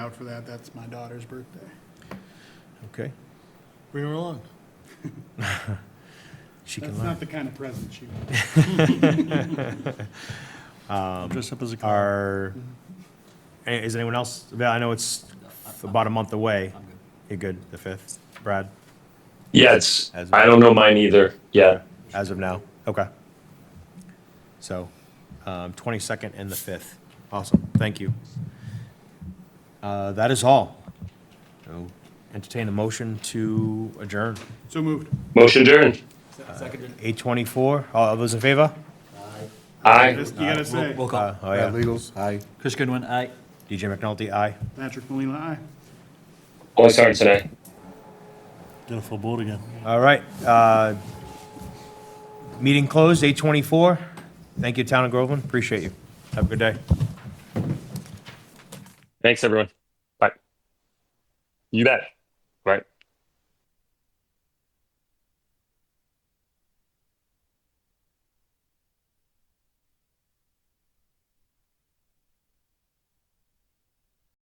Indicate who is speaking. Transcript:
Speaker 1: out for that. That's my daughter's birthday.
Speaker 2: Okay,
Speaker 3: Bring her along.
Speaker 2: she can
Speaker 1: That's
Speaker 2: learn.
Speaker 1: not the kind of present she wants.
Speaker 3: Dress up as a car.
Speaker 2: Are, eh, is anyone else, avail- I know it's about a month away. You're good, the 5th? Brad,
Speaker 4: Yes.
Speaker 2: As-
Speaker 4: I don't know mine either. Yeah.
Speaker 2: as of now? Okay. So, um, 22nd and the 5th. Awesome, thank you. Uh, That is all. So, Entertain a motion to adjourn.
Speaker 1: So moved.
Speaker 4: Motion adjourned.
Speaker 2: 8:24, all those in favor?
Speaker 4: Aye.
Speaker 1: You gotta say,
Speaker 5: Roll call.
Speaker 2: Uh, Oh, yeah.
Speaker 5: Legals, aye. Chris Goodwin, aye.
Speaker 2: DJ McNulty, aye.
Speaker 1: Patrick Molina, aye.
Speaker 4: Only starting tonight.
Speaker 3: Get a full board again.
Speaker 2: All right, uh, meeting closed, 8:24. Thank you, Town of Groveland, appreciate you. Have a good day.
Speaker 4: Thanks, everyone. Bye. You bet. Right.